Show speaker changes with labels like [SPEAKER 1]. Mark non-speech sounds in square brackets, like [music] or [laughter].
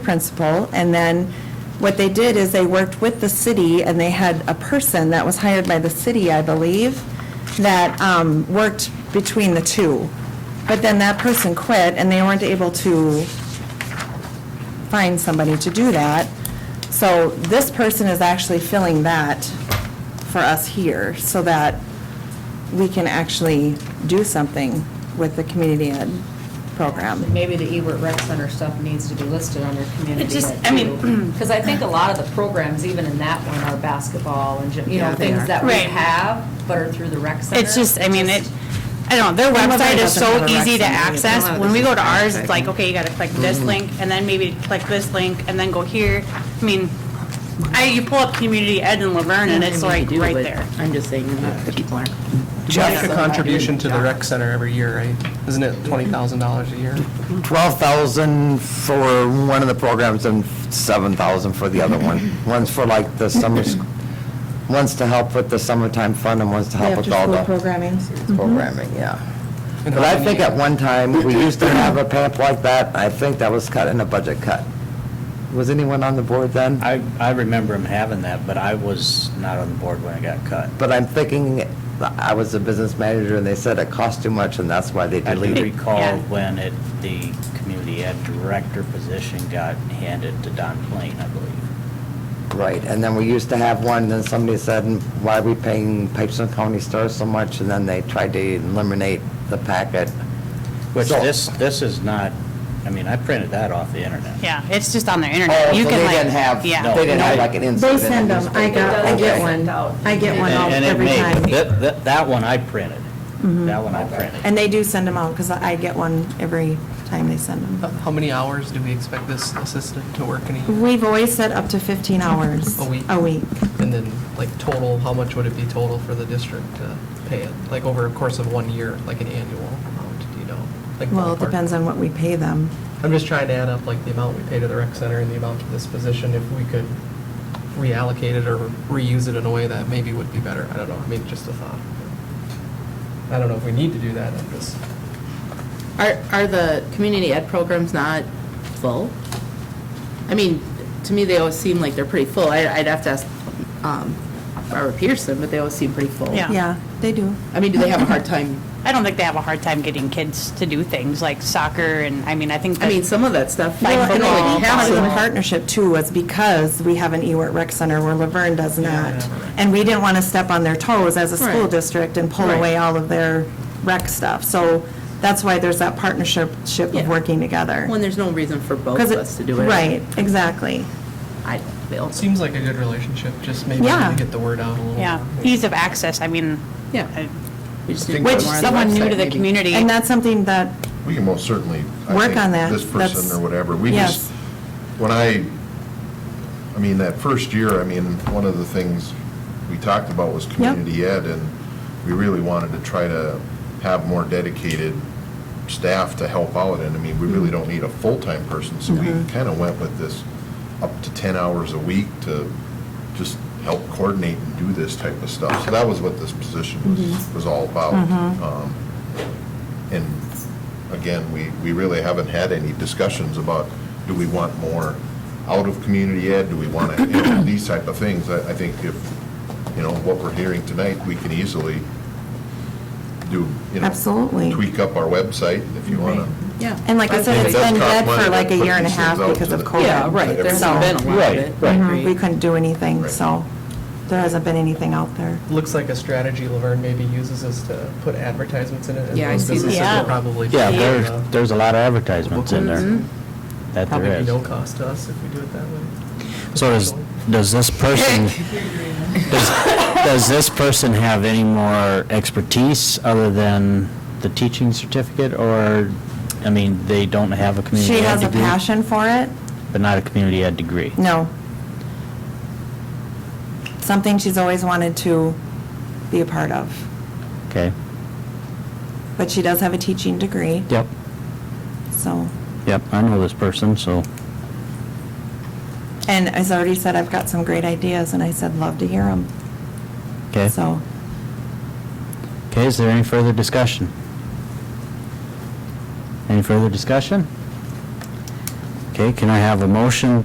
[SPEAKER 1] principal, and then what they did is they worked with the city, and they had a person that was hired by the city, I believe, that um, worked between the two. But then that person quit, and they weren't able to find somebody to do that. So this person is actually filling that for us here, so that we can actually do something with the community ed program.
[SPEAKER 2] Maybe the Ebert Rec Center stuff needs to be listed under community.
[SPEAKER 3] It just-
[SPEAKER 2] ed,
[SPEAKER 3] I mean-
[SPEAKER 2] too. Because I think a lot of the programs, even in that one, are basketball and, gym- you know,
[SPEAKER 1] Yeah, they
[SPEAKER 2] things
[SPEAKER 1] are.
[SPEAKER 2] that we
[SPEAKER 3] Right.
[SPEAKER 2] have, but are through the rec center.
[SPEAKER 3] It's just, I mean, it, I don't know, their
[SPEAKER 1] Well, nobody
[SPEAKER 3] website is
[SPEAKER 1] doesn't have
[SPEAKER 3] so
[SPEAKER 1] a rec
[SPEAKER 3] easy to
[SPEAKER 1] center.
[SPEAKER 3] access.
[SPEAKER 1] None of
[SPEAKER 3] When
[SPEAKER 1] this
[SPEAKER 3] we go
[SPEAKER 1] is
[SPEAKER 3] to ours, it's
[SPEAKER 1] accessed.
[SPEAKER 3] like, okay, you gotta click this link, and then maybe click this link, and then go here. I mean, I, you pull up Community Ed in Laverne, and it's like right there.
[SPEAKER 4] I'm just saying, the people aren't.
[SPEAKER 5] Jack, a contribution to the rec center every year, right? Isn't it $20,000 a year?
[SPEAKER 6] 12,000 for one of the programs and 7,000 for the other
[SPEAKER 7] [clears throat]
[SPEAKER 6] one. One's for like the summer, sc- one's to help with the summertime fund and one's to help with all the
[SPEAKER 1] programming. Mm-hmm.
[SPEAKER 6] programming, yeah.
[SPEAKER 5] And
[SPEAKER 6] But
[SPEAKER 5] how
[SPEAKER 6] I
[SPEAKER 5] many-
[SPEAKER 6] think at one time, we used to have a PEP like that. I think that was cut in a budget cut. Was anyone on the board then?
[SPEAKER 7] I, I remember him having that, but I was not on the board when it got cut.
[SPEAKER 6] But I'm thinking, I was a business manager and they said it cost too much and that's why they
[SPEAKER 7] I do
[SPEAKER 6] deleted.
[SPEAKER 3] Yeah.
[SPEAKER 7] recall when it, the community ed director position got handed to Don Plain, I believe.
[SPEAKER 6] Right, and then we used to have one, then somebody said, why are we paying Pipestone County Star so much? And then they tried to eliminate the packet.
[SPEAKER 7] Which
[SPEAKER 6] So-
[SPEAKER 7] this, this is not, I mean, I printed that off the internet.
[SPEAKER 3] Yeah, Uh, it's just on their
[SPEAKER 6] Oh,
[SPEAKER 3] internet.
[SPEAKER 6] so
[SPEAKER 3] You
[SPEAKER 6] they
[SPEAKER 3] can like,
[SPEAKER 6] didn't have, they
[SPEAKER 3] Yeah.
[SPEAKER 6] didn't have
[SPEAKER 7] No.
[SPEAKER 6] like an insert
[SPEAKER 1] They
[SPEAKER 6] in the
[SPEAKER 1] send them, I
[SPEAKER 6] newspaper.
[SPEAKER 1] got, I get
[SPEAKER 6] Okay.
[SPEAKER 1] one, I get one out
[SPEAKER 7] And- and it
[SPEAKER 1] every
[SPEAKER 7] may-
[SPEAKER 1] time.
[SPEAKER 7] That, that- that one I printed.
[SPEAKER 3] Mm-hmm.
[SPEAKER 7] That one I printed.
[SPEAKER 1] And they do send them out, because I get one every time they send
[SPEAKER 5] How-
[SPEAKER 1] them.
[SPEAKER 5] How many hours do we expect this assistant to work in a year?
[SPEAKER 1] We've always said up to 15 hours.
[SPEAKER 5] A week.
[SPEAKER 1] A week.
[SPEAKER 5] And then, like, total, how much would it be total for the district to pay it? Like, over a course of one year, like an annual amount, do you know? Like
[SPEAKER 1] Well, it
[SPEAKER 5] ballpark?
[SPEAKER 1] depends on what we pay them.
[SPEAKER 5] I'm just trying to add up, like, the amount we pay to the rec center and the amount to this position, if we could reallocate it or reuse it in a way that maybe would be better. I don't know, maybe just a thought. I don't know if we need to do that, I'm just.
[SPEAKER 4] Are, are the community ed programs not full? I mean, to me, they always seem like they're pretty full. I, I'd have to ask um, Barbara Pearson, but they always seem pretty full.
[SPEAKER 3] Yeah.
[SPEAKER 1] Yeah, they do.
[SPEAKER 4] I mean, do they have a hard time?
[SPEAKER 3] I don't think they have a hard time getting kids to do things like soccer, and, I mean, I think.
[SPEAKER 4] I mean,
[SPEAKER 3] that-
[SPEAKER 4] some of that stuff, like
[SPEAKER 1] Well, and I
[SPEAKER 4] football,
[SPEAKER 1] think part of the
[SPEAKER 4] basketball.
[SPEAKER 1] partnership too was because we have an Ewart Rec Center where Laverne does not. And we didn't want to step on their toes as a school
[SPEAKER 4] Right.
[SPEAKER 1] district and pull away all of their rec stuff. So that's why there's that partnership ship of
[SPEAKER 4] Yeah.
[SPEAKER 1] working together.
[SPEAKER 4] When there's no reason for both
[SPEAKER 1] 'Cause
[SPEAKER 4] of
[SPEAKER 1] it-
[SPEAKER 4] us to do it.
[SPEAKER 1] Right, exactly.
[SPEAKER 4] I don't feel.
[SPEAKER 5] Seems like a good relationship, just maybe
[SPEAKER 1] Yeah.
[SPEAKER 5] to get the word out a little.
[SPEAKER 3] Yeah, ease of access, I mean.
[SPEAKER 4] Yeah.
[SPEAKER 3] I-
[SPEAKER 4] We just need to
[SPEAKER 3] Which,
[SPEAKER 4] put more on the
[SPEAKER 3] someone new
[SPEAKER 4] website,
[SPEAKER 3] to the
[SPEAKER 4] maybe.
[SPEAKER 3] community.
[SPEAKER 1] And that's something that,
[SPEAKER 8] We can most certainly. I
[SPEAKER 1] Work
[SPEAKER 8] think,
[SPEAKER 1] on that.
[SPEAKER 8] This
[SPEAKER 1] That's-
[SPEAKER 8] person or whatever. We just,
[SPEAKER 1] yes.
[SPEAKER 8] when I, I mean, that first year, I mean, one of the things we talked about was community ed, and we really wanted to try to have more dedicated staff to help out, and I mean, we
[SPEAKER 1] Mm-hmm.
[SPEAKER 8] really don't need a full-time person, so we kind of went with this up to 10 hours a week to just help coordinate and do this type of stuff. So that was what this position
[SPEAKER 4] Mm-hmm.
[SPEAKER 8] was, was all about. Um, and again, we, we really haven't had any discussions about, do we want more out of community ed? Do we want to, you know, [coughs] these type of things. I, I think if, you know, what we're hearing tonight, we can easily do, you know.
[SPEAKER 1] Absolutely.
[SPEAKER 8] Tweak up our website if you want to.
[SPEAKER 4] Yeah.
[SPEAKER 1] and like I said,
[SPEAKER 8] It
[SPEAKER 1] it's
[SPEAKER 8] does
[SPEAKER 1] been
[SPEAKER 8] cost
[SPEAKER 1] dead for
[SPEAKER 8] money to
[SPEAKER 1] like a
[SPEAKER 8] put
[SPEAKER 1] year and a
[SPEAKER 8] these
[SPEAKER 1] half
[SPEAKER 8] things out
[SPEAKER 1] because
[SPEAKER 8] to
[SPEAKER 1] of
[SPEAKER 8] the-
[SPEAKER 1] COVID.
[SPEAKER 4] Yeah, right, there
[SPEAKER 1] So-
[SPEAKER 4] hasn't been a lot of it. I
[SPEAKER 1] Mhm,
[SPEAKER 4] agree.
[SPEAKER 1] We couldn't do anything,
[SPEAKER 8] Right.
[SPEAKER 1] so there hasn't been anything out there.
[SPEAKER 5] Looks like a strategy Laverne maybe uses is to put advertisements in it. and
[SPEAKER 4] Yeah, I
[SPEAKER 5] those
[SPEAKER 4] see that.
[SPEAKER 5] businesses will
[SPEAKER 3] Yeah.
[SPEAKER 5] Probably.
[SPEAKER 7] Yeah,
[SPEAKER 5] pay,
[SPEAKER 7] there's,
[SPEAKER 5] uh, Mm-hmm.
[SPEAKER 7] there's a lot of advertisements in
[SPEAKER 3] Mm-hmm.
[SPEAKER 7] there. That
[SPEAKER 5] Probably
[SPEAKER 7] there
[SPEAKER 5] be
[SPEAKER 7] is.
[SPEAKER 5] no cost to us if we do it that way.
[SPEAKER 7] So does, does this person, does, does this person have any more expertise other than the teaching certificate? Or, I mean, they don't have a community
[SPEAKER 1] She
[SPEAKER 7] ed
[SPEAKER 1] has a
[SPEAKER 7] degree?
[SPEAKER 1] passion for it.
[SPEAKER 7] But not a community ed degree?
[SPEAKER 1] No. Something she's always wanted to be a part of.
[SPEAKER 7] Okay.
[SPEAKER 1] But she does have a teaching degree,
[SPEAKER 7] Yep,
[SPEAKER 1] so.
[SPEAKER 7] yep, I know this person, so.
[SPEAKER 1] And as I already said, I've got some great ideas, and I said, love to hear them.
[SPEAKER 7] Okay.
[SPEAKER 1] So,
[SPEAKER 7] Okay, is there any further discussion? Any further discussion? Okay, can I have a motion